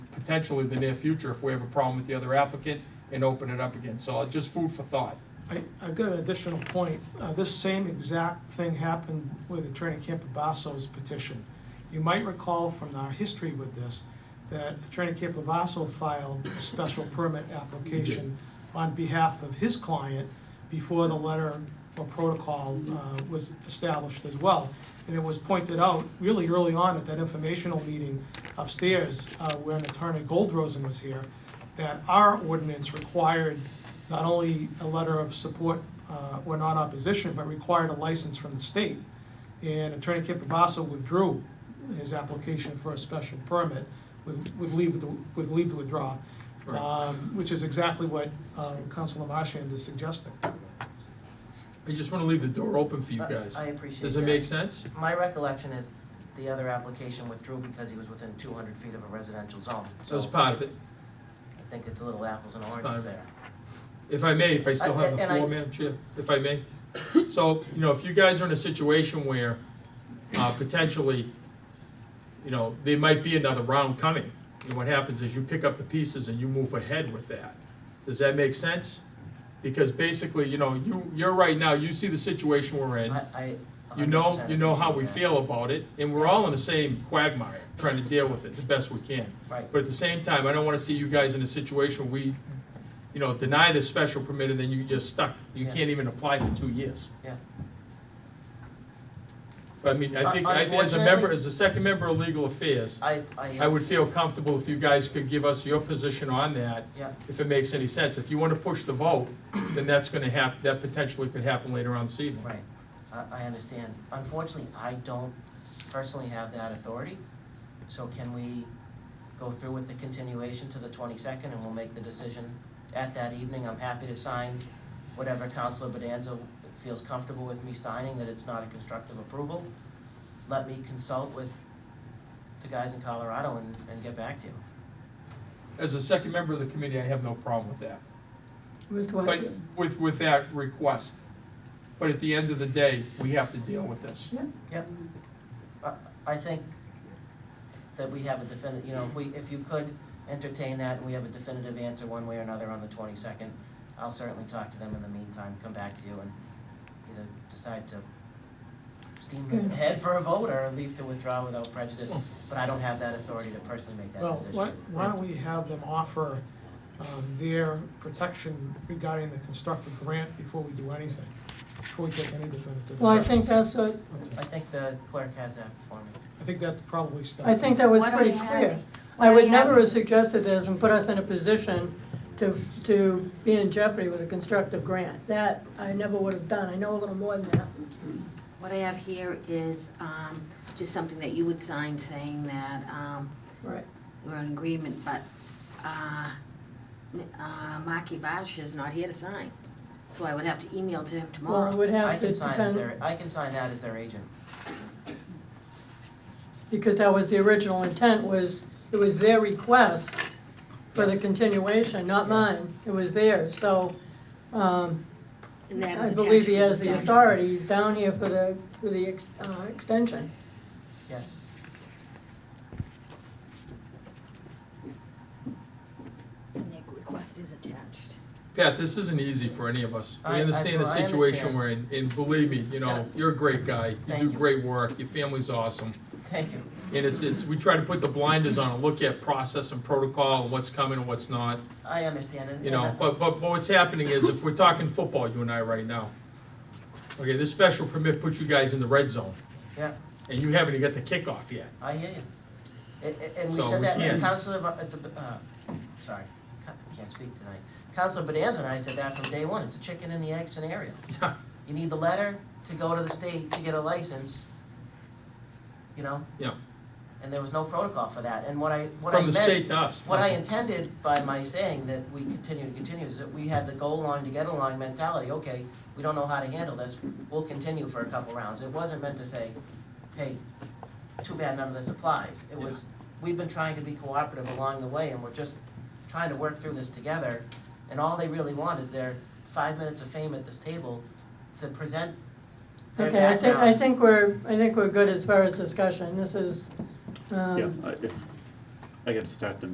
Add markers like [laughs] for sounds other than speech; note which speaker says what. Speaker 1: potentially the near future if we have a problem with the other applicant and open it up again. So just food for thought.
Speaker 2: I, I've got an additional point. Uh, this same exact thing happened with Attorney Campabasso's petition. You might recall from our history with this, that Attorney Campabasso filed a special permit application on behalf of his client before the letter or protocol, uh, was established as well. And it was pointed out really early on at that informational meeting upstairs, uh, when Attorney Goldrosen was here, that our ordinance required not only a letter of support uh, or non-opposition, but required a license from the state. And Attorney Campabasso withdrew his application for a special permit with, with leave, to- with leave to withdraw,
Speaker 1: Right.
Speaker 2: um, which is exactly what uh, Councilor Marchand is suggesting.
Speaker 1: I just want to leave the door open for you
Speaker 3: But
Speaker 1: guys.
Speaker 3: I appreciate that.
Speaker 1: Does it make sense?
Speaker 3: My recollection is the other application withdrew because he was within two hundred feet of a residential zone.
Speaker 1: So it's
Speaker 3: So
Speaker 1: part of it.
Speaker 3: I think it's a little apples and
Speaker 1: fine.
Speaker 3: oranges there.
Speaker 1: If I may, if I still
Speaker 3: I-
Speaker 1: have the
Speaker 3: and I-
Speaker 1: floor, Madam Chair, if I may. So, you know, if you guys are in a situation where uh, potentially, you know, there might be another round coming, and what happens is you pick up the pieces and you move ahead with that. Does that make sense? Because basically, you know, you, you're right now, you see the situation we're in.
Speaker 3: I, I. a
Speaker 1: You
Speaker 3: hundred
Speaker 1: know,
Speaker 3: percent
Speaker 1: you know how we
Speaker 3: appreciate
Speaker 1: feel about it, and we're all in the same quagmire, trying to deal with it the best we can.
Speaker 3: that. Right,
Speaker 1: But at the same time, I don't wanna see you guys in a situation where we, you know, deny this special permit and then you, you're stuck. You
Speaker 3: Yeah.
Speaker 1: can't even apply for two years.
Speaker 3: yeah.
Speaker 1: But I mean, I think, I- as a member,
Speaker 3: Unfortunately-
Speaker 1: as a second member of Legal Affairs,
Speaker 3: I, I.
Speaker 1: I would feel comfortable if you guys could give us your position on that,
Speaker 3: Yeah,
Speaker 1: if it makes any sense. If you wanna push the vote, then that's gonna hap, that potentially could happen later on this evening.
Speaker 3: right. I, I understand. Unfortunately, I don't personally have that authority. So can we go through with the continuation to the twenty-second and we'll make the decision at that evening? I'm happy to sign whatever Counselor Bedanza feels comfortable with me signing, that it's not a constructive approval. Let me consult with the guys in Colorado and, and get back to you.
Speaker 1: As a second member of the committee, I have no problem with that.
Speaker 4: With what?
Speaker 1: But with, with that request. But at the end of the day, we have to deal with this.
Speaker 3: Yep. I, I think that we have a definite, you know, if we, if you could entertain that and we have a definitive answer one way or another on the twenty-second, I'll certainly talk to them in the meantime, come back to you and either decide to steam
Speaker 4: Good.
Speaker 3: ahead for a vote or leave to withdraw without prejudice, but I don't have that authority to personally make that
Speaker 2: Well,
Speaker 3: decision.
Speaker 2: why, why don't we have them offer um, their protection regarding the constructive grant before we do anything, before we take any definitive.
Speaker 4: Well, I
Speaker 2: action?
Speaker 4: think that's what,
Speaker 3: I think the clerk has that for me.
Speaker 2: I think that's probably stuff.
Speaker 4: I think that was
Speaker 5: Why don't
Speaker 4: pretty
Speaker 5: we have-
Speaker 4: clear.
Speaker 5: why
Speaker 4: I
Speaker 5: don't
Speaker 4: would
Speaker 5: we have-
Speaker 4: never have suggested this and put us in a position to, to be in jeopardy with a constructive grant. That I never would have done. I know a little more than that.
Speaker 5: What I have here is um, just something that you would sign saying that um,
Speaker 4: Right.
Speaker 5: we're in agreement, but uh, uh, Maki Bash is not here to sign. So I would have to email to him
Speaker 4: Well, it
Speaker 5: tomorrow.
Speaker 4: would
Speaker 3: I
Speaker 4: have to
Speaker 3: can sign as
Speaker 4: depend,
Speaker 3: their, I can sign that as their agent.
Speaker 4: because that was the original intent was, it was their request for the
Speaker 3: Yes.
Speaker 4: continuation, not
Speaker 3: Yes.
Speaker 4: mine. It was theirs, so, um,
Speaker 5: And that is
Speaker 4: I believe he
Speaker 5: attached to
Speaker 4: has the
Speaker 5: document.
Speaker 4: authority. He's down here for the, for the, ex- uh, extension.
Speaker 3: Yes.
Speaker 5: And the request is attached.
Speaker 1: Pat, this isn't easy for any of us. We
Speaker 3: I- I-
Speaker 1: understand the
Speaker 3: I understand.
Speaker 1: situation we're in, and believe me, you
Speaker 3: Yeah.
Speaker 1: know, you're a great guy. You do
Speaker 3: Thank you.
Speaker 1: great work, your family's awesome.
Speaker 3: Thank you.
Speaker 1: And it's, it's, we try to put the blinders on and look at process and protocol and what's coming and what's not,
Speaker 3: I understand and.
Speaker 1: you
Speaker 3: and
Speaker 1: know.
Speaker 3: I-
Speaker 1: But, but but what's happening is, if we're talking football, you and I right now, okay, this special permit puts you guys in the red zone,
Speaker 3: Yeah.
Speaker 1: and you haven't even got the kickoff yet. [laughs]
Speaker 3: I hear you. And- And, and we
Speaker 1: So
Speaker 3: said
Speaker 1: we
Speaker 3: that,
Speaker 1: can't-
Speaker 3: and Counselor, Ba- uh, the- uh, sorry, ca- I can't speak tonight. Counselor Bonanza and I said that from day one, it's a chicken and the egg scenario.
Speaker 1: Yeah.
Speaker 3: You need the letter to go to the state to get a license, you know?
Speaker 1: Yeah.
Speaker 3: And there was no protocol for that, and what I, what I
Speaker 1: From the
Speaker 3: meant.
Speaker 1: state to us.
Speaker 3: What I intended by my saying that we continue to continue is that we had the goal line to get along mentality, okay, we don't know how to handle this, we'll continue for a couple rounds. It wasn't meant to say, hey, too bad none of this applies. It was, we've been trying to be cooperative along the way and we're just trying to work through this together. And all they really want is their five minutes of fame at this table to present their
Speaker 4: Okay, I think, I
Speaker 3: background.
Speaker 4: think we're, I think we're good as far as discussion, this is, um.
Speaker 6: Yeah, I- if, I gotta start the